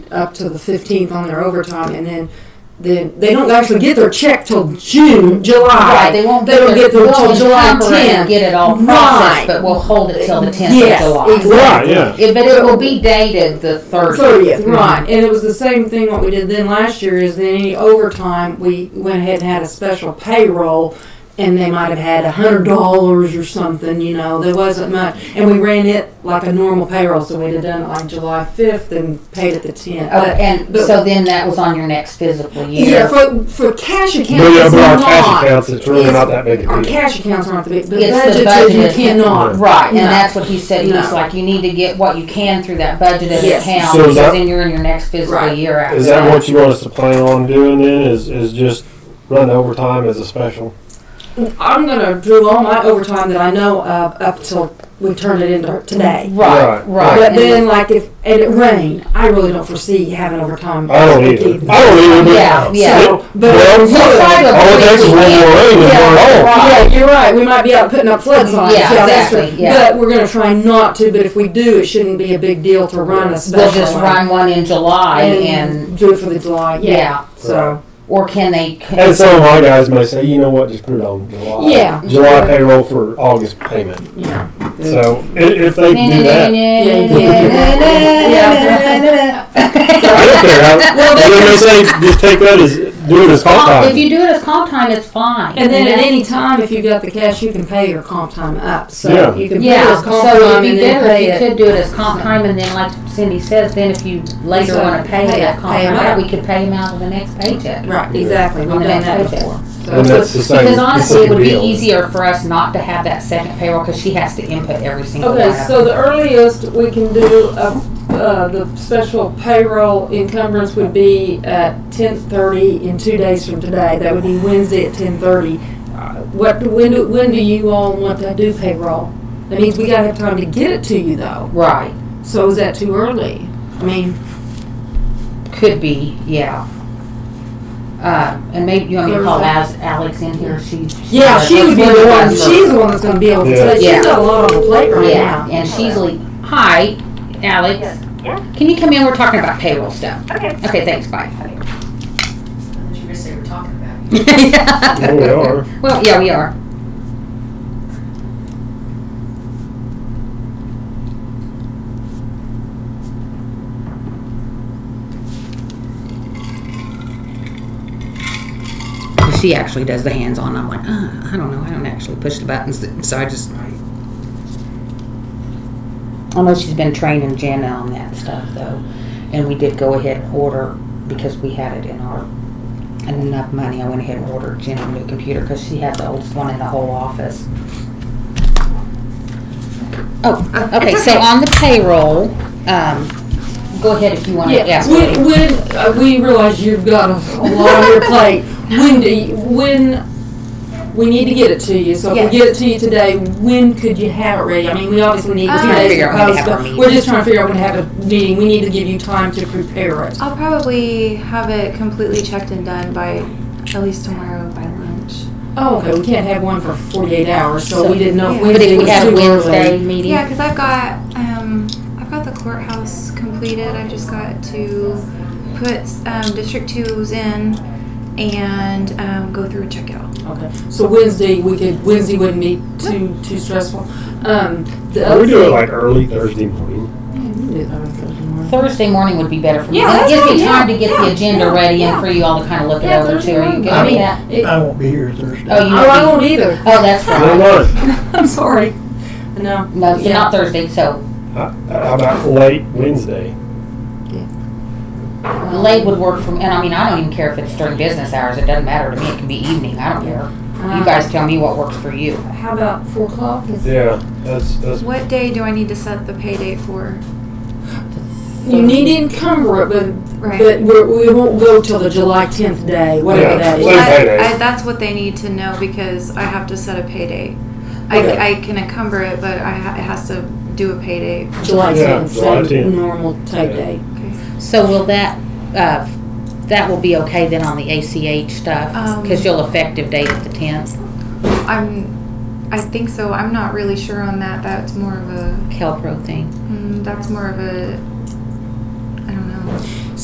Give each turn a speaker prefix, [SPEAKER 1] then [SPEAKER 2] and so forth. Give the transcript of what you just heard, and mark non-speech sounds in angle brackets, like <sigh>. [SPEAKER 1] up to the 15th on their overtime, and then then they don't actually get their check till June, July.
[SPEAKER 2] Right, they won't
[SPEAKER 1] They don't get
[SPEAKER 2] their-
[SPEAKER 1] there
[SPEAKER 2] we'll
[SPEAKER 1] till July
[SPEAKER 2] encumber it and
[SPEAKER 1] 10th.
[SPEAKER 2] Get it all
[SPEAKER 1] Right.
[SPEAKER 2] processed, but we'll hold it till the tenth of
[SPEAKER 1] Yes,
[SPEAKER 2] July.
[SPEAKER 1] exactly.
[SPEAKER 3] Right, yeah.
[SPEAKER 2] It- But it will be dated the thirtieth. Mm-hmm.
[SPEAKER 1] Thirtieth, right, and it was the same thing what we did then last year. Is then any overtime we went ahead and had a special payroll, and they might have had a hundred dollars or something. You know, there wasn't much, and we ran it like a normal payroll, so we'd have done it like July fifth and paid at the tenth.
[SPEAKER 2] Oh, and
[SPEAKER 1] but-
[SPEAKER 2] so then that was on your next physical
[SPEAKER 1] yeah,
[SPEAKER 2] year.
[SPEAKER 1] for for cash accounts,
[SPEAKER 3] But yeah,
[SPEAKER 1] it's
[SPEAKER 3] but our
[SPEAKER 1] not.
[SPEAKER 3] cash accounts, it's really
[SPEAKER 1] It's-
[SPEAKER 3] not that big a
[SPEAKER 1] Our
[SPEAKER 3] deal.
[SPEAKER 1] cash accounts aren't the big, but
[SPEAKER 2] It's the
[SPEAKER 1] budgeted you
[SPEAKER 2] budgeted.
[SPEAKER 1] cannot.
[SPEAKER 2] Right, and
[SPEAKER 1] No.
[SPEAKER 2] that's what he said, he was
[SPEAKER 1] No.
[SPEAKER 2] like, you need to get what you can through that budgeted
[SPEAKER 1] Yes.
[SPEAKER 2] account,
[SPEAKER 3] So
[SPEAKER 2] because
[SPEAKER 3] that-
[SPEAKER 2] then you're in your next fiscal
[SPEAKER 1] Right.
[SPEAKER 2] year after
[SPEAKER 3] Is that what you want us to plan on doing then, is, is just run overtime as a special?
[SPEAKER 1] I'm gonna do all my overtime that I know of up till we turn it into today.
[SPEAKER 2] Right,
[SPEAKER 3] Right.
[SPEAKER 2] right.
[SPEAKER 1] But
[SPEAKER 2] and-
[SPEAKER 1] then, like if and it rained, I really don't foresee having overtime.
[SPEAKER 3] I don't either, I don't either, but.
[SPEAKER 2] Yeah, yeah.
[SPEAKER 1] So, but
[SPEAKER 3] Well,
[SPEAKER 1] Yeah.
[SPEAKER 2] We'll try to
[SPEAKER 3] All it
[SPEAKER 2] avoid
[SPEAKER 3] takes is
[SPEAKER 2] the
[SPEAKER 3] one more
[SPEAKER 2] weekend.
[SPEAKER 3] rain and
[SPEAKER 1] Yeah,
[SPEAKER 3] we're on.
[SPEAKER 1] right. Yeah, you're right. We might be out putting up flood signs.
[SPEAKER 2] Yeah,
[SPEAKER 1] that's
[SPEAKER 2] exactly,
[SPEAKER 1] true.
[SPEAKER 2] yeah.
[SPEAKER 1] But we're gonna try not to. But if we do, it shouldn't be a big deal to run a special.
[SPEAKER 2] We'll just
[SPEAKER 1] one
[SPEAKER 2] run one in July
[SPEAKER 1] and,
[SPEAKER 2] and,
[SPEAKER 1] do it for the July. Yeah.
[SPEAKER 2] yeah,
[SPEAKER 1] So
[SPEAKER 2] or can they?
[SPEAKER 3] And some of my guys may say, you know what, just put it on July.
[SPEAKER 1] Yeah.
[SPEAKER 3] July payroll for August payment.
[SPEAKER 1] yeah.
[SPEAKER 3] So i- if they do that, I don't care.
[SPEAKER 2] <laughs>
[SPEAKER 3] I- They may say, just take that as, do it as comp
[SPEAKER 2] Comp- If
[SPEAKER 3] time.
[SPEAKER 2] you do it as comp time, it's fine.
[SPEAKER 1] And then at
[SPEAKER 2] Yeah.
[SPEAKER 1] any time, if you got the cash, you can pay your comp time up. So
[SPEAKER 3] Yeah.
[SPEAKER 1] you can pay
[SPEAKER 2] Yeah,
[SPEAKER 1] your comp
[SPEAKER 2] so it'd
[SPEAKER 1] time
[SPEAKER 2] be
[SPEAKER 1] and then
[SPEAKER 2] better
[SPEAKER 1] pay it.
[SPEAKER 2] if you could do it as comp time, and then like Cindy says, then if you later
[SPEAKER 1] So,
[SPEAKER 2] wanna pay
[SPEAKER 1] pay
[SPEAKER 2] that
[SPEAKER 1] it,
[SPEAKER 2] comp
[SPEAKER 1] pay 'em
[SPEAKER 2] time,
[SPEAKER 1] out.
[SPEAKER 2] back, we could pay them out of the next paycheck.
[SPEAKER 1] Right, exactly. We've
[SPEAKER 2] On the
[SPEAKER 1] done that
[SPEAKER 2] next
[SPEAKER 1] before.
[SPEAKER 2] paycheck.
[SPEAKER 3] And
[SPEAKER 1] So,
[SPEAKER 3] that's the same.
[SPEAKER 2] Because
[SPEAKER 3] the
[SPEAKER 2] honestly, it would
[SPEAKER 3] same
[SPEAKER 2] be
[SPEAKER 3] deal.
[SPEAKER 2] easier for us not to have that second payroll, cause she has to input every single one of
[SPEAKER 1] okay,
[SPEAKER 2] them.
[SPEAKER 1] so the earliest we can do a, uh, the special payroll encumbrance would be at 10:30 in two days from today. That would be Wednesday at 10:30. Uh, What when do when do you all want to do payroll? That means we gotta have time to get it to you though.
[SPEAKER 2] Right,
[SPEAKER 1] So is that too early? I mean,
[SPEAKER 2] could be, yeah. Uh, and maybe, you want me to call Alex, Alex in here, she.
[SPEAKER 1] Yeah, she would be the one. She's the one that's going to be able to say.
[SPEAKER 2] Yeah.
[SPEAKER 1] She's got a lot on the plate right
[SPEAKER 2] Yeah,
[SPEAKER 1] now.
[SPEAKER 2] and she's like, hi, Alex.
[SPEAKER 4] Yeah.
[SPEAKER 2] Can you come in? We're talking about payroll stuff.
[SPEAKER 4] Okay.
[SPEAKER 2] Okay, thanks, bye.
[SPEAKER 5] You just say we're talking about
[SPEAKER 2] <laughs>
[SPEAKER 5] it.
[SPEAKER 3] Oh, we are.
[SPEAKER 2] Well, yeah, we are. She actually does the hands-on. I'm like, uh, I don't know. I don't actually push the buttons, so I just. I know she's been training Jenna on that stuff though, and we did go ahead and order because we had it in our and enough money, I went ahead and ordered Jen a new computer because she had the oldest one in the whole office.
[SPEAKER 1] Uh,
[SPEAKER 2] Oh, okay, so on the payroll, um, go ahead if you want to
[SPEAKER 1] Yeah,
[SPEAKER 2] ask.
[SPEAKER 1] when, when uh, we realize you've got a, a lot on your plate, when do you, when we need to get it to you? So if we
[SPEAKER 2] Yes.
[SPEAKER 1] get it to you today, when could you have it ready? I mean, we obviously need two
[SPEAKER 5] Uh,
[SPEAKER 1] days
[SPEAKER 2] Figure
[SPEAKER 1] to
[SPEAKER 2] out when to
[SPEAKER 1] post,
[SPEAKER 2] have our
[SPEAKER 1] but
[SPEAKER 2] meeting.
[SPEAKER 1] we're just trying to figure out when to have a meeting. We need to give you time to prepare it.
[SPEAKER 5] I'll probably have it completely checked and done by at least tomorrow by lunch.
[SPEAKER 1] Oh, okay. We can't have one for 48 hours, so,
[SPEAKER 2] So-
[SPEAKER 1] we didn't know if
[SPEAKER 5] Yeah.
[SPEAKER 2] But
[SPEAKER 1] Wednesday
[SPEAKER 2] if we
[SPEAKER 1] was
[SPEAKER 2] had a
[SPEAKER 1] too early.
[SPEAKER 2] Wednesday meeting,
[SPEAKER 5] Yeah, because I've got um, I've got the courthouse completed. I just got to put um, District Two's in and um, go through and check it out.
[SPEAKER 1] Okay, so Wednesday, we could, Wednesday wouldn't be too, too stressful. Um, the
[SPEAKER 3] Can
[SPEAKER 1] other
[SPEAKER 3] we do it
[SPEAKER 1] thing-
[SPEAKER 3] like early Thursday morning?
[SPEAKER 2] Thursday morning would be better for me.
[SPEAKER 1] Yeah,
[SPEAKER 2] It gives
[SPEAKER 1] that's
[SPEAKER 2] me
[SPEAKER 1] fine,
[SPEAKER 2] time to get the
[SPEAKER 1] yeah,
[SPEAKER 2] agenda
[SPEAKER 1] yeah,
[SPEAKER 2] ready
[SPEAKER 1] yeah.
[SPEAKER 2] and for you all to kind of look it
[SPEAKER 1] Yeah,
[SPEAKER 2] over
[SPEAKER 1] Thursday
[SPEAKER 2] too. Are you
[SPEAKER 1] morning.
[SPEAKER 2] good
[SPEAKER 1] I
[SPEAKER 2] with
[SPEAKER 1] mean,
[SPEAKER 2] that?
[SPEAKER 1] it-
[SPEAKER 6] I won't be here Thursday.
[SPEAKER 2] Oh, you
[SPEAKER 1] Oh, I
[SPEAKER 2] won't
[SPEAKER 1] won't
[SPEAKER 2] be.
[SPEAKER 1] either.
[SPEAKER 2] Oh, that's
[SPEAKER 3] Why
[SPEAKER 2] right.
[SPEAKER 3] not?
[SPEAKER 1] I'm sorry. No.
[SPEAKER 2] No, so
[SPEAKER 1] Yeah.
[SPEAKER 2] not Thursday, so
[SPEAKER 3] How how about late Wednesday?
[SPEAKER 2] late would work for me. And I mean, I don't even care if it's during business hours. It doesn't matter to me. It can be evening. I don't care.
[SPEAKER 1] Uh-huh.
[SPEAKER 2] You guys tell me what works for you.
[SPEAKER 1] How about four o'clock? Is-
[SPEAKER 3] Yeah, that's, that's,
[SPEAKER 5] What day do I need to set the pay date for?
[SPEAKER 1] You need to encumber it, but,
[SPEAKER 5] Right.
[SPEAKER 1] but we're, we won't go till the July tenth day, whatever
[SPEAKER 3] Yeah.
[SPEAKER 1] that
[SPEAKER 3] Well,
[SPEAKER 1] is.
[SPEAKER 3] Same pay date.
[SPEAKER 5] I, I, that's what they need to know because I have to set a pay date.
[SPEAKER 3] Okay.
[SPEAKER 5] I, I can encumber it, but I, ha- it has to do a pay date.
[SPEAKER 1] July
[SPEAKER 3] Yeah,
[SPEAKER 1] tenth,
[SPEAKER 3] July 10th.
[SPEAKER 1] same normal type
[SPEAKER 3] Yeah.
[SPEAKER 1] day.
[SPEAKER 2] So will that, uh, that will be okay then on the ACH stuff?
[SPEAKER 5] Um.
[SPEAKER 2] Because you'll effective date at the tenth.
[SPEAKER 5] I'm, I think so. I'm not really sure on that. That's more of a,
[SPEAKER 2] Calpro thing.
[SPEAKER 5] mm, that's more of a